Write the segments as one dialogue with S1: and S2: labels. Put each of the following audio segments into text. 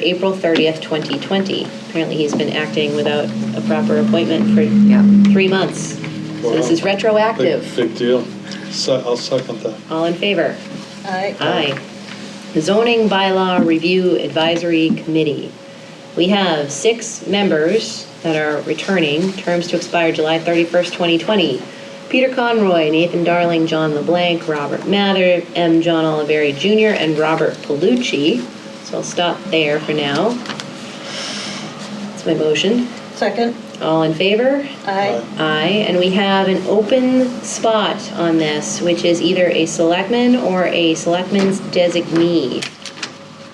S1: April 30th, 2020. Apparently, he's been acting without a proper appointment for
S2: Yeah.
S1: three months. So this is
S3: Wow. Big,
S1: retroactive.
S3: big deal. Se- I'll second that.
S1: All in favor?
S4: Aye.
S1: Aye. The Zoning Bylaw Review Advisory Committee. We have six members that are returning, terms to expire July 31st, 2020. Peter Conroy, Nathan Darling, John LeBlanc, Robert Mather, M. John Oliveri Jr., and Robert Palucci. So I'll stop there for now. That's my motion.
S4: Second?
S1: All in favor?
S4: Aye.
S1: Aye, and we have an open spot on this, which is either a selectman or a selectman's designee.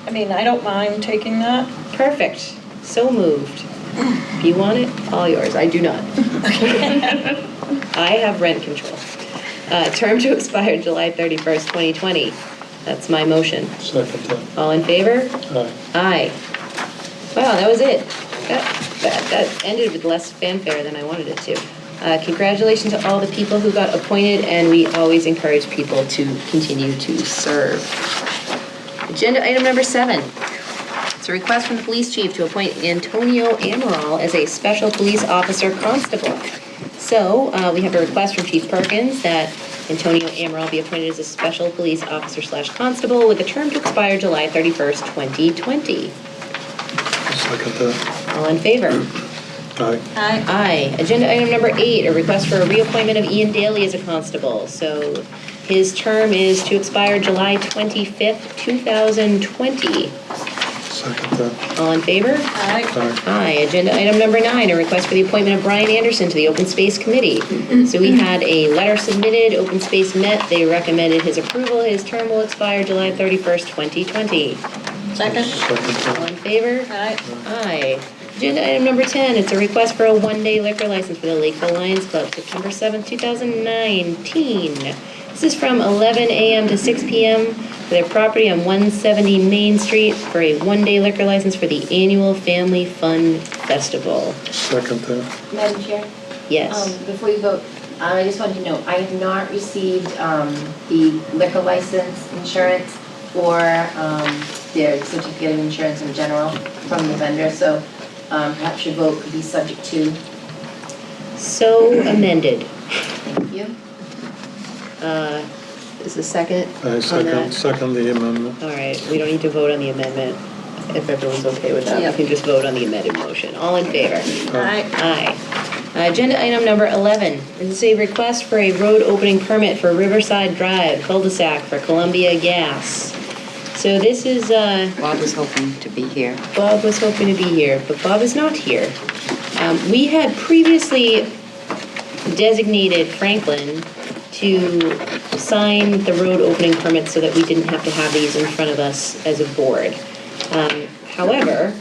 S4: I mean, I don't mind taking that.
S1: Perfect, so moved. If you want it, all yours, I do not. I have rent control. Uh, term to expire July 31st, 2020. That's my motion.
S3: Second that.
S1: All in favor?
S3: Aye.
S1: Aye. Wow, that was it. That, that, that ended with less fanfare than I wanted it to. Uh, congratulations to all the people who got appointed, and we always encourage people to continue to serve. Agenda item number seven. It's a request from the police chief to appoint Antonio Amaral as a special police officer constable. So, uh, we have a request from Chief Perkins that Antonio Amaral be appointed as a special police officer slash constable with a term to expire July 31st, 2020.
S3: Second that.
S1: All in favor?
S3: Aye.
S4: Aye.
S1: Aye. Agenda item number eight, a request for a reappointment of Ian Daly as a constable. So his term is to expire July 25th, 2020.
S3: Second that.
S1: All in favor?
S4: Aye.
S3: Aye.
S1: Aye. Agenda item number nine, a request for the appointment of Brian Anderson to the Open Space Committee. So we had a letter submitted, Open Space met, they recommended his approval. His term will expire July 31st, 2020.
S4: Second?
S3: Second
S1: All
S3: that.
S1: in favor?
S4: Aye.
S1: Aye. Agenda item number 10, it's a request for a one-day liquor license for the Lakeville Lions Club, September 7th, 2019. This is from 11 a.m. to 6 p.m. for their property on 170 Main Street for a one-day liquor license for the annual Family Fun Festival.
S3: Second that.
S5: Madam Chair?
S1: Yes.
S5: Um, Before you vote, I just wanted to know, I have not received um, the liquor license insurance or um, their certificate of insurance in general from the vendor, so um, perhaps your vote could be subject to.
S1: Um, So amended.
S5: Thank you.
S1: Uh, Is the second
S3: I
S1: on that?
S3: Uh, second, second the amendment.
S1: All right, we don't need to vote on the amendment. If everyone's okay with that,
S4: Yeah.
S1: we can just vote on the amended motion. All in favor?
S4: Aye.
S1: Aye. Uh, Agenda item number 11 This is a request for a road opening permit for Riverside Drive cul-de-sac for Columbia Gas. So this is, uh,
S2: Bob was hoping to be here.
S1: Bob was hoping to be here, but Bob is not here. Um, We had previously designated Franklin to sign the road opening permits so that we didn't have to have these in front of us as a board. Um, However,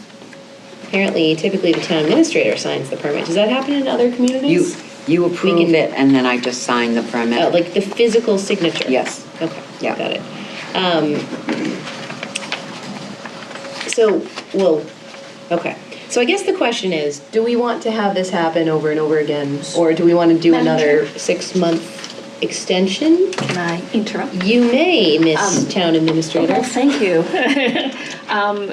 S1: apparently typically the town administrator signs the permit. Does that happen in other
S2: You,
S1: communities?
S2: you approve it and then I just sign the permit.
S1: Oh, like the physical signature?
S2: Yes.
S1: Okay,
S2: Yeah.
S1: got it. Um, So, well, okay. So I guess the question is, do we want to have this happen over and over again? Or do we want to do
S6: Madam
S1: another six-month extension?
S6: Can I interrupt?
S1: You may, Miss Town Administrator.
S6: Well, thank you. Um,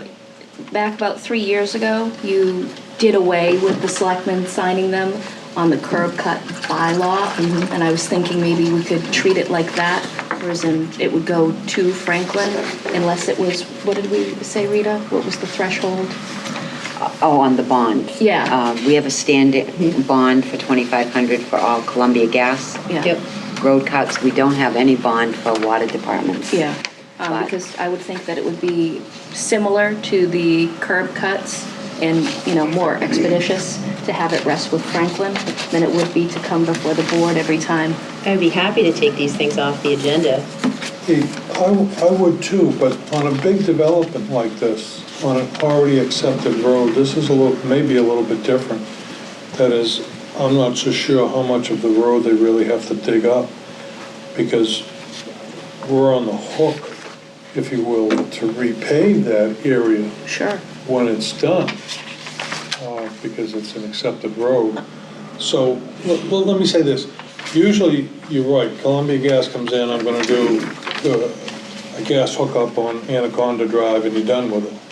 S6: Back about three years ago, you did away with the selectmen signing them on the curb cut bylaw. And I was thinking maybe we could treat it like that, whereas in, it would go to Franklin unless it was, what did we say, Rita? What was the threshold?
S2: Oh, on the bond.
S6: Yeah.
S2: Uh, We have a standing bond for 2,500 for all Columbia Gas.
S6: Yeah.
S1: Yep.
S2: Road cuts, we don't have any bond for water departments.
S6: Yeah, um,
S2: But-
S6: because I would think that it would be similar to the curb cuts and, you know, more expeditious to have it rest with Franklin than it would be to come before the board every time.
S1: I'd be happy to take these things off the agenda.
S3: Hey, I, I would too, but on a big development like this, on an already accepted road, this is a little, maybe a little bit different. That is, I'm not so sure how much of the road they really have to dig up, because we're on the hook, if you will, to repave that area
S6: Sure.
S3: when it's done, uh, because it's an accepted road. So, l- well, let me say this, usually, you're right, Columbia Gas comes in, I'm gonna do uh, a gas hookup on Anaconda Drive, and you're done with it.